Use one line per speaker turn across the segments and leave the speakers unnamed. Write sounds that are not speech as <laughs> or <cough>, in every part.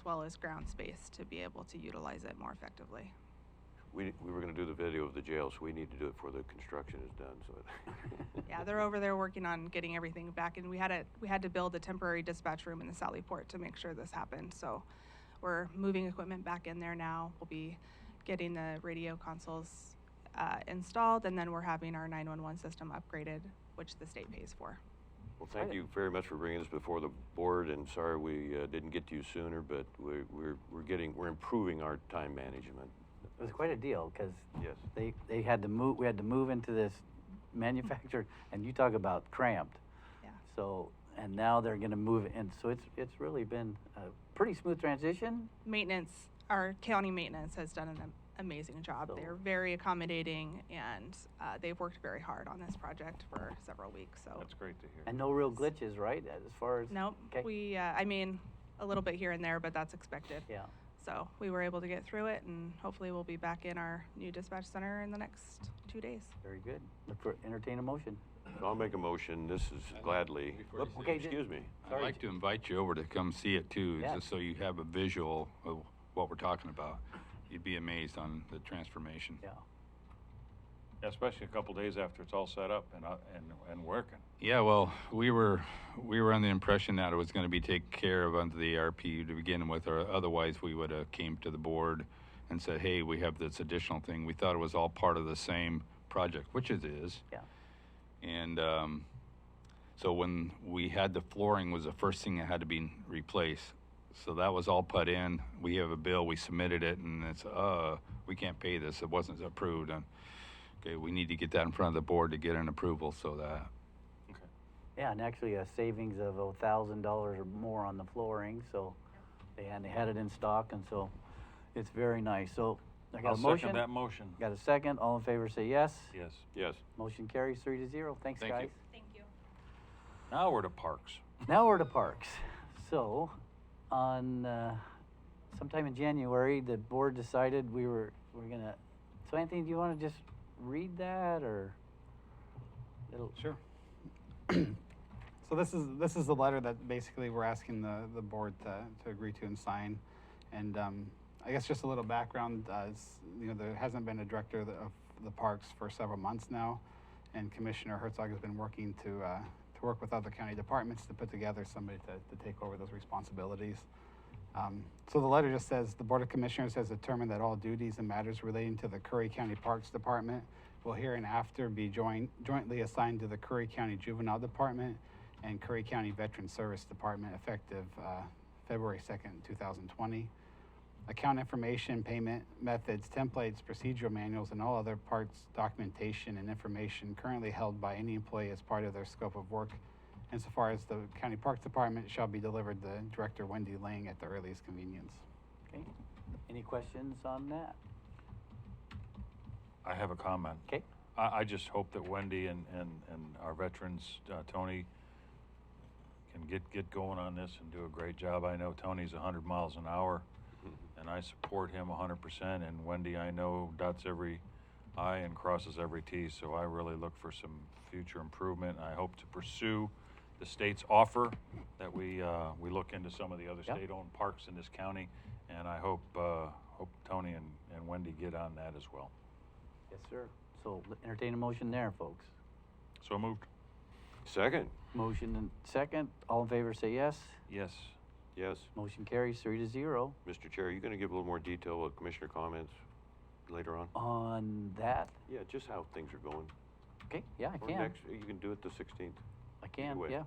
as well as ground space to be able to utilize it more effectively.
We, we were gonna do the video of the jail, so we need to do it before the construction is done, so. <laughs> it-
Yeah, they're over there working on getting everything back, and we had a, we had to build a temporary dispatch room in the Sally Port to make sure this happened, so we're moving equipment back in there now. We'll be getting the radio consoles, uh, installed, and then we're having our nine-one-one system upgraded, which the state pays for.
Well, thank you very much for bringing this before the board, and sorry we uh, didn't get to you sooner, but we're, we're, we're getting, we're improving our time management.
It was quite a deal because
Yes.
they, they had to move, we had to move into this manufactured, and you talk about cramped.
Yeah.
So, and now they're going to move it in. So it's, it's really been a pretty smooth transition.
maintenance, our county maintenance has done an am- amazing job.
So-
They're very accommodating and uh, they've worked very hard on this project for several weeks, so.
That's great to hear.
And no real glitches, right? As far as.
Nope,
Okay.
we, uh, I mean, a little bit here and there, but that's expected.
Yeah.
So we were able to get through it and hopefully we'll be back in our new dispatch center in the next two days.
Very good. Look for, entertain a motion.
So I'll make a motion, this is gladly,
Before you
Whoop,
say-
excuse me.
I'd like to invite you over to come see it too,
Yeah.
just so you have a visual of what we're talking about. You'd be amazed on the transformation.
Yeah.
Yeah, Especially a couple days after it's all set up and, uh, and, and working.
Yeah, well, we were we were under the impression that it was going to be taken care of under the ARPU to begin with, or otherwise we would have came to the board and said, "Hey, we have this additional thing." We thought it was all part of the same project, which it is.
Yeah.
And um, so when we had the flooring was the first thing that had to be replaced. So that was all put in. We have a bill. We submitted it, and it's uh we can't pay this. It wasn't approved. And, okay, we need to get that in front of the board to get an approval so that
Okay.
Yeah. And actually a savings of a thousand dollars or more on the flooring. So they had, they had it in stock. And so it's very nice. So I got
I'll
a motion.
second that motion.
Got a second? All in favor say yes.
Yes.
Yes.
Motion carries three to zero. Thanks,
Thank you.
guys.
Thank you.
Now we're to parks.
Now we're to parks. So, on uh, sometime in January, the board decided we were we're gonna. So, Anthony, do you want to just read that or? It'll,
Sure. So this is, this is the letter that basically we're asking the, the board to, to agree to and sign. And um, I guess just a little background, uh, is, you know, there hasn't been a director of the- of the parks for several months now. And Commissioner Herzog has been working to, uh, to work with other county departments to put together somebody to, to take over those responsibilities. Um, So the letter just says, "The Board of Commissioners has determined that all duties and matters relating to the Curry County Parks Department will hereinafter be join- jointly assigned to the Curry County Juvenile Department and Curry County Veteran Service Department effective uh, February 2nd, 2020. Account information, payment methods, templates, procedural manuals, and all other parts, documentation, and information currently held by any employee as part of their scope of work insofar as the county parks department shall be delivered to Director Wendy Lang at the earliest convenience.
okay. Any questions on that?
I have a comment.
Okay.
I, I just hope that Wendy and, and, and our veterans, uh, Tony, can get, get going on this and do a great job. I know Tony's hundred miles an hour,
Mm-hmm.
and I support him hundred percent, and Wendy, I know dots every I and crosses every T, so I really look for some future improvement. I hope to pursue the state's offer that we, uh, we look into some of the other
Yeah.
state-owned parks in this county, and I hope, uh, hope Tony and, and Wendy get on that as well.
Yes, sir. So l- entertain a motion there, folks.
So moved.
Second,
Motion and second. All in favor say yes.
Yes.
yes.
Motion carries three to zero
Mr. Chair, are you gonna give a little more detail of commissioner comments later on?
on that.
Yeah, just how things are going.
Okay. Yeah, I
Or
can.
next- You can do it the sixteenth.
I can,
way.
yeah.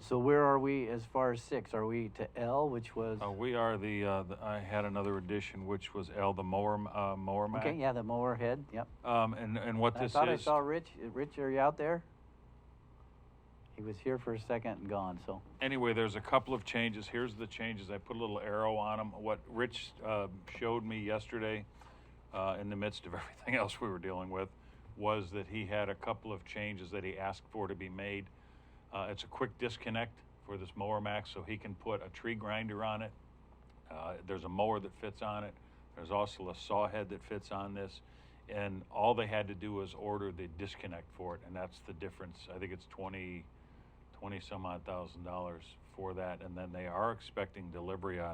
So where are we as far as six? Are we to L, which was?
Uh, we are the, uh, the, I had another addition, which was L, the mower, m- uh, mower man.
Okay, yeah, the mower head, yep.
Um, and, and what
I
this
thought I
is,
saw Rich, Uh, Rich, are you out there? He was here for a second and gone, so,
anyway, there's a couple of changes. Here's the changes. I put a little arrow on them. What Rich, uh, showed me yesterday, uh, in the midst of <laughs> everything else we were dealing with, was that he had a couple of changes that he asked for to be made. Uh, it's a quick disconnect for this mower max, so he can put a tree grinder on it. Uh, there's a mower that fits on it. There's also a saw head that fits on this. And all they had to do was order the disconnect for it, and that's the difference. I think it's 20, 20 some odd thousand dollars for that, and then they are expecting delivery on